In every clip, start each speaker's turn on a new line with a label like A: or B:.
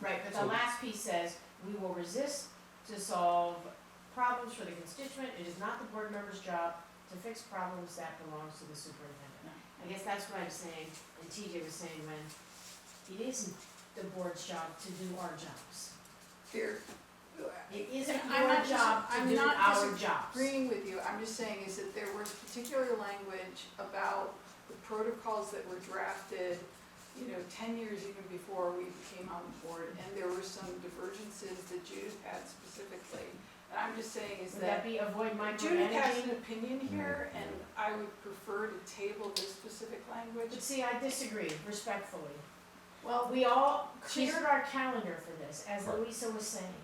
A: Right, but
B: So-
A: the last piece says, we will resist to solve problems for the constituent, it is not the board member's job to fix problems that belongs to the superintendent. I guess that's what I'm saying, and TJ was saying when, it isn't the board's job to do our jobs.
C: Here,
A: It isn't
C: I'm
A: your
C: not dis-
A: job to
C: I'm
A: do
C: not
A: our jobs.
C: agreeing with you, I'm just saying is that there was particular language about the protocols that were drafted, you know, ten years even before we came on the board, and there were some divergences that Judith had specifically. And I'm just saying is
A: Would that be avoid
C: Judith has
A: micromanaging?
C: an opinion here, and I would prefer to table this specific language.
A: But see, I disagree respectfully.
C: Well,
A: We all
C: She's-
A: cleared our calendar for this, as
B: Right.
A: Louisa was saying.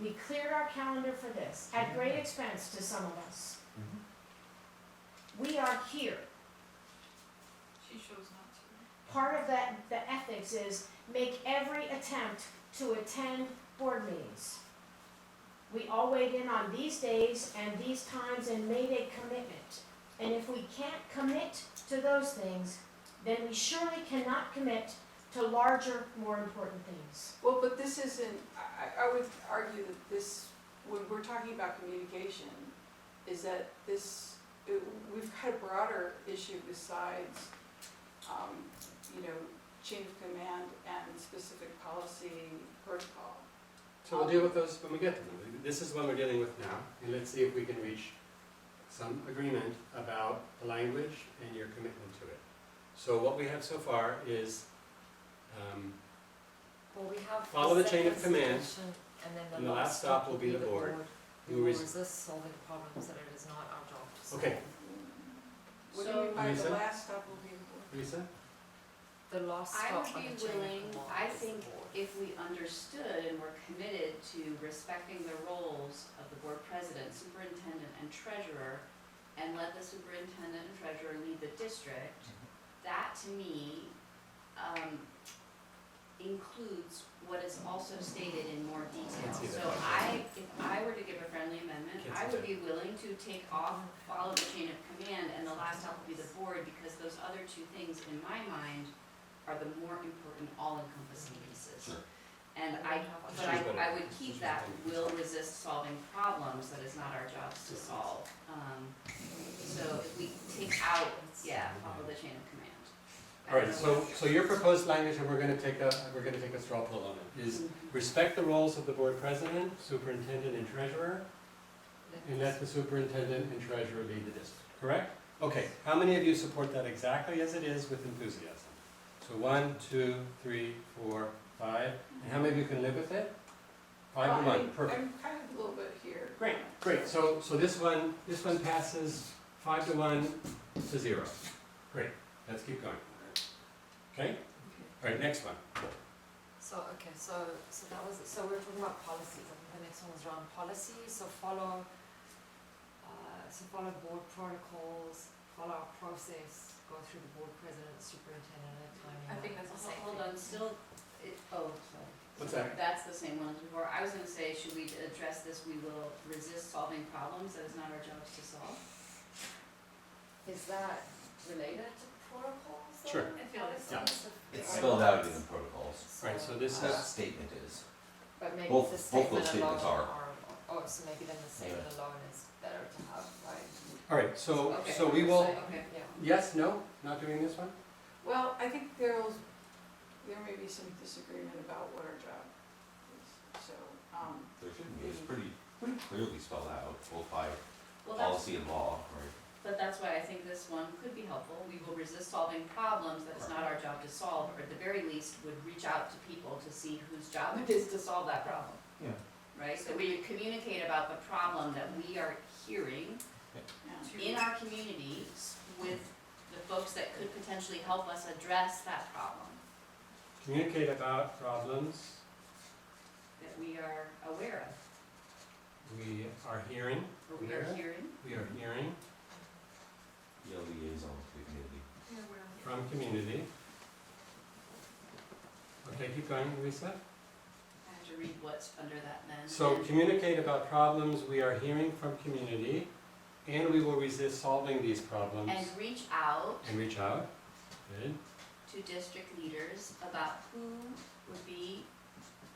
A: We cleared our calendar for this, at great expense to some of us. We are here.
C: She chose not
A: Part of that, the ethics is make every attempt to attend board meetings. We all weighed in on these days and these times and made a commitment. And if we can't commit to those things, then we surely cannot commit to larger, more important things.
C: Well, but this isn't, I, I- I would argue that this, when we're talking about communication, is that this, it- we've got a broader issue besides, um, you know, chain of command and specific policy protocol.
B: So we'll deal with those when we get to them. This is what we're dealing with now, and let's see if we can reach some agreement about the language and your commitment to it. So what we have so far is, um,
D: Well, we have.
B: Follow the chain of
D: second
B: command,
D: solution, And then
B: and
D: the last stop will be the board. We
B: who
D: will
B: is-
D: resist solving problems that it is not our job to solve.
B: okay,
C: What do you mean by the
B: Lisa?
C: last stop will be important?
B: Lisa?
D: The last
E: I
D: stop
E: would
D: on the chain
E: be
D: of
E: willing,
D: command
E: I
D: is the
E: think
D: board.
E: if we understood and were committed to respecting the roles of the board president, superintendent, and treasurer, and let the superintendent and treasurer lead the district,
B: Mm-hmm.
E: that to me, um, includes what is also stated in more detail.
B: Can't see that.
E: So I, if I were to give a friendly amendment,
B: Can't see
E: I would
B: that.
E: be willing to take off, follow the chain of command, and the last stop will be the board, because those other two things, in my mind, are the more important all-encompassing pieces.
B: Sure.
E: And I, but
B: She's better.
E: I, I would
B: She's
E: keep that,
B: better.
E: will resist solving problems that is not our jobs to solve. Um, So if we take out, yeah, follow the chain of command. I
B: All
E: don't
B: right,
E: know
B: so,
E: what-
B: so your proposed language, and we're gonna take a, we're gonna take a straw poll on it, is respect the roles of the board president, superintendent, and treasurer, and let the superintendent and treasurer lead the district, correct? Okay, how many of you support that exactly as it is with enthusiasm? So one, two, three, four, five, and how many of you can live with it? Five to
C: Well, I
B: one,
C: mean,
B: perfect.
C: I'm kind of a little bit here.
B: Great, great, so, so this one, this one passes five to one to zero. Great, let's keep going. Okay, all right, next one.
D: So, okay, so, so that was, so we're talking about policies, I think the next one was around policy, so follow, uh, so follow board protocols, follow our process, go through the board president, superintendent, and timing.
C: I think that's the same
E: Hold on, still, it, oh, sorry.
B: What's that?
E: That's the same one as before. I was gonna say, should we address this, we will resist solving problems that is not our jobs to solve?
D: Is that related to protocols? though?
B: Sure.
E: I feel it's-
B: Yeah.
F: It's spelled out in the protocols.
B: Right, so this
F: That
B: is-
D: uh,
F: statement is,
D: But maybe
F: both-
D: the
F: both those
D: statement alone
F: statements are.
D: are, oh, so maybe then the statement alone is better to have, right?
B: All right, so,
E: Okay.
B: Oh, so we will,
E: Okay.
D: Yeah.
B: yes, no, not doing this one?
C: Well, I think there'll, there may be some disagreement about what our job is, so, um,
F: there shouldn't be, it's pretty, pretty clearly spelled out, both by
E: Well, that's,
F: policy and law, right?
E: but that's why I think this one could be helpful. We will resist solving problems that is not our job to solve, or at the very least, would reach out to people to see whose job it is to solve that problem.
F: Yeah.
E: Right, so we communicate about the problem that we are hearing
C: yeah.
E: in our community with the folks that could potentially help us address that problem,
B: Communicate about problems
E: that we are aware of,
B: we are hearing,
E: or we are
B: Yeah.
E: hearing.
B: we are hearing
F: Yeah, liaison to the community.
B: from community. Okay, keep going, Lisa.
E: I have to read what's under that then.
B: So
E: And-
B: communicate about problems we are hearing from community, and we will resist solving these problems
E: And reach out
B: and reach out. Good.
E: to district leaders about who would be